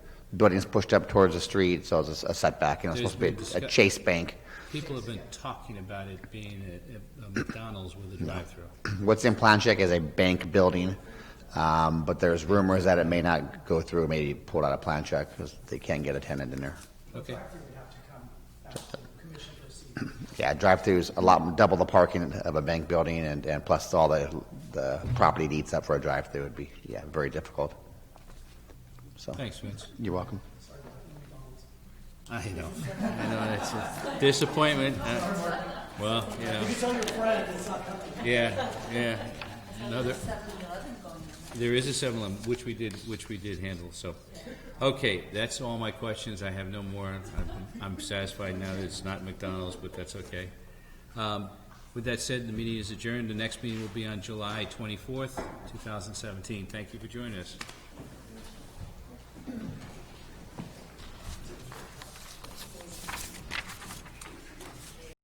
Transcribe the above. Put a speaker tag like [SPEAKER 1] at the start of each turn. [SPEAKER 1] building's pushed up towards the street, so it's a setback, you know, it's
[SPEAKER 2] There's
[SPEAKER 1] supposed to
[SPEAKER 2] been
[SPEAKER 1] be a- a
[SPEAKER 2] discuss-
[SPEAKER 1] Chase Bank.
[SPEAKER 2] People have been talking about it being a- a a McDonald's with a drive-through.
[SPEAKER 1] What's in Planchek is a bank building, um, but there's rumors that it may not go through, maybe pulled out of Planchek, because they can't get a tenant in there.
[SPEAKER 2] Okay,
[SPEAKER 3] Factory would have to come back to commission to see.
[SPEAKER 1] Yeah, drive-throughs, a lot, double the parking of a bank building, and, and plus all the, the property it eats up for a drive-through would be, yeah, very difficult. So,
[SPEAKER 2] thanks, Vince.
[SPEAKER 1] you're welcome.
[SPEAKER 2] I know, I know, it's a disappointment. Uh, Well, you know. Yeah, yeah. Another, there is a seven-eleven, which we did, which we did handle, so. Okay, that's all my questions. I have no more. I'm- I'm satisfied now that it's not McDonald's, but that's okay. Um, With that said, the meeting is adjourned. The next meeting will be on July twenty-fourth, two thousand seventeen. Thank you for joining us.